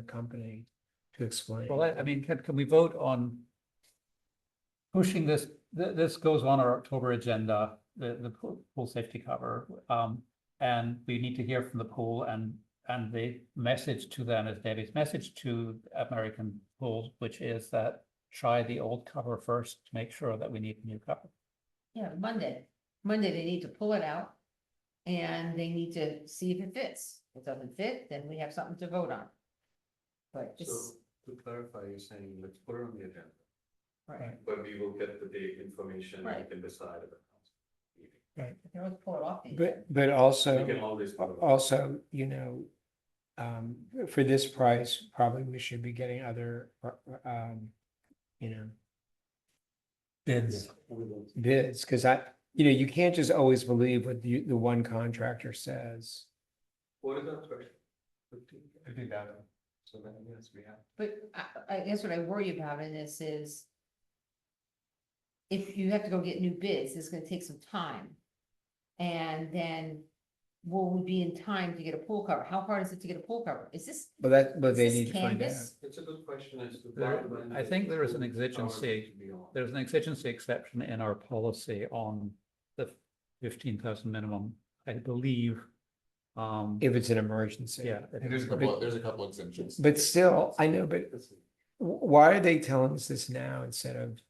the company to explain. Well, I, I mean, can, can we vote on pushing this, th- this goes on our October agenda, the, the pool, pool safety cover. Um, and we need to hear from the pool and, and the message to them is Debbie's message to American pools, which is that try the old cover first to make sure that we need a new cover. Yeah, Monday, Monday they need to pull it out. And they need to see if it fits. If it doesn't fit, then we have something to vote on. But just, So to clarify, you're saying let's put it on the agenda, right, but we will get the date information and Right. we can decide at the council meeting. they can always pull it off. the agenda. But, but We can also, always. put it on. also, you know, um, for this price, probably we should be getting other, um, you know, Bids. We will- bids, because I, you know, you can't just always believe what the, the one contractor says. What is that question? Fifteen? Fifteen thousand. So then, yes, we have. But I, I guess what I worry about in this is. If you have to go get new bids, it's gonna take some time. And then will we be in time to get a pool cover? How hard is it to get a pool cover? Is this? But that, but is they this need to find out. canvas? It's a good question as to. There- when I the think there is an full exigency. hours beyond. There's an exigency exception in our policy on the fifteen thousand minimum, I believe. Um, If it's an emergency. yeah. it And there's a is. couple, there's a couple exemptions. But still, I know, but wh- why are they telling us this now instead of,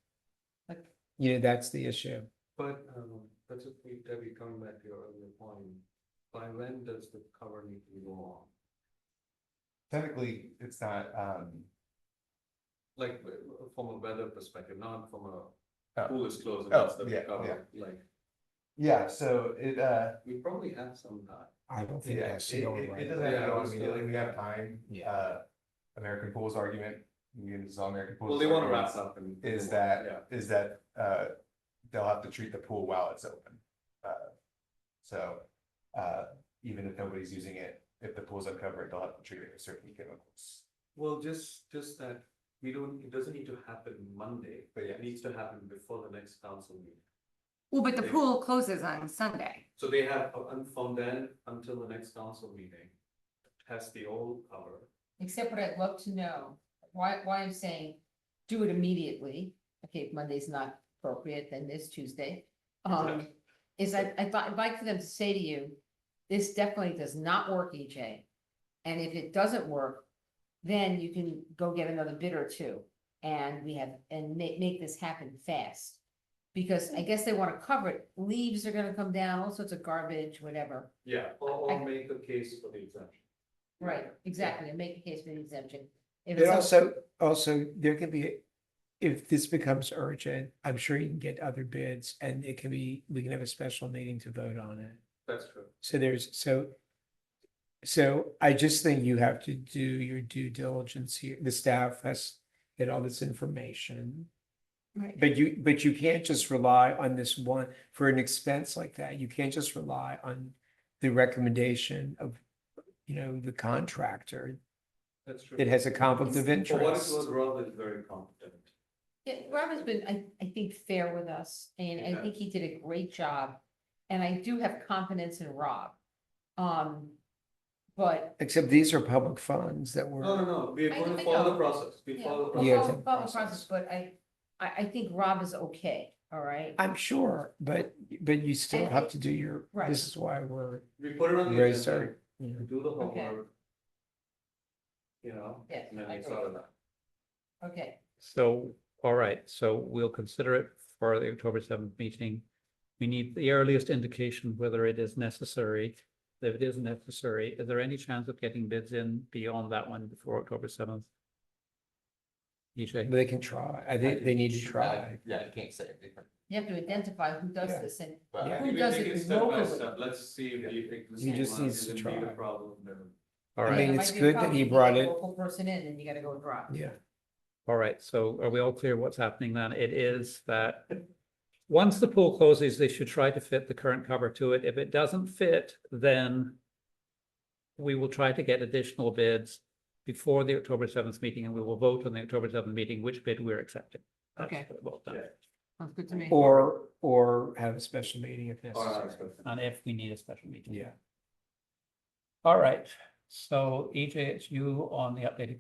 Like- you know, that's the issue. But, um, that's a, we- Debbie, coming back to your earlier point, by when does the cover need to go on? Technically, it's not, um, Like, uh, from a weather perspective, not from a Oh. pool is closed, and Oh, that's the yeah, cover, like, yeah, so it, uh, we probably have some time. I don't think yeah, it, that's it it the only way. doesn't have to Yeah, go it on was immediately, still- we have time. Yeah. Uh, American Pools argument, you can solve American Pools. Well, they wanna argument wrap up and. Is Yeah. that, is that, uh, they'll have to treat the pool while it's open. Uh, So, uh, even if nobody's using it, if the pool's uncovered, they'll have to treat it with certain chemicals. Well, just, just that we don't, it doesn't need to happen Monday, but But yeah. it needs to happen before the next council meeting. Well, but the pool closes on Sunday. So they have, uh, un- from then until the next council meeting, test the old cover. Except what I'd love to know, why, why I'm saying, do it immediately, okay, if Monday's not appropriate, then this Tuesday. Um, is I, I'd li- I'd like for them to say to you, this definitely does not work, EJ. And if it doesn't work, then you can go get another bid or two, and we have, and make, make this happen fast. Because I guess they wanna cover it, leaves are gonna come down, all sorts of garbage, whatever. Yeah. Or, I- or make a case for the exemption. Right, exactly, and make a case for the exemption. If But it's up- also, also, there can be, if this becomes urgent, I'm sure you can get other bids and it can be, we can have a special meeting to vote on it. That's true. So there's, so, so I just think you have to do your due diligence here. The staff has get all this information. Right. But you, but you can't just rely on this one, for an expense like that, you can't just rely on the recommendation of, you know, the contractor That's true. that has a conflict of For what it interest. was, Rob is very competent. Yeah, Rob has been, I, I think, fair with us, and I Yeah. think he did a great job, and I do have confidence in Rob. Um, but. Except these are public funds that No, no, we're, no, we're I- going I to follow know. the process. We yeah, follow the we'll Yeah, process. it's follow- a follow the process. process, but I, I, I think Rob is okay, all right? I'm sure, but, but you still And- have to do your, Right. this is why we're, We put it on the Very agenda, sorry. you know, we do the Okay. homework. You know, Yes, and then I it's agree. out of that. Okay, So, all right, so we'll consider it for the October seventh meeting. We need the earliest indication whether it is necessary. If it is necessary, is there any chance of getting bids in beyond that one before October seventh? E EJ, they can try. I think they need to try. Yeah, I can't say anything. you have to identify who does Yeah. this, and but- Yeah. Who We does take it step by locally? step. Let's see if the He existing just one needs is to a bigger try. problem than. all I and right, mean, it might it's be a good that problem he if you brought get a it- Local person in, and you gotta go with Rob. Yeah. all right, so are we all clear what's happening then? It is that once the pool closes, they should try to fit the current cover to it. If it doesn't fit, then we will try to get additional bids before the October seventh meeting, and we will vote on the October seventh meeting which bid we're accepting. That's Okay. what it boils down to. Sounds good to me. Or, or have a special meeting if necessary. And if we need a special meeting. Yeah. All right, so EJ, it's E you on the updated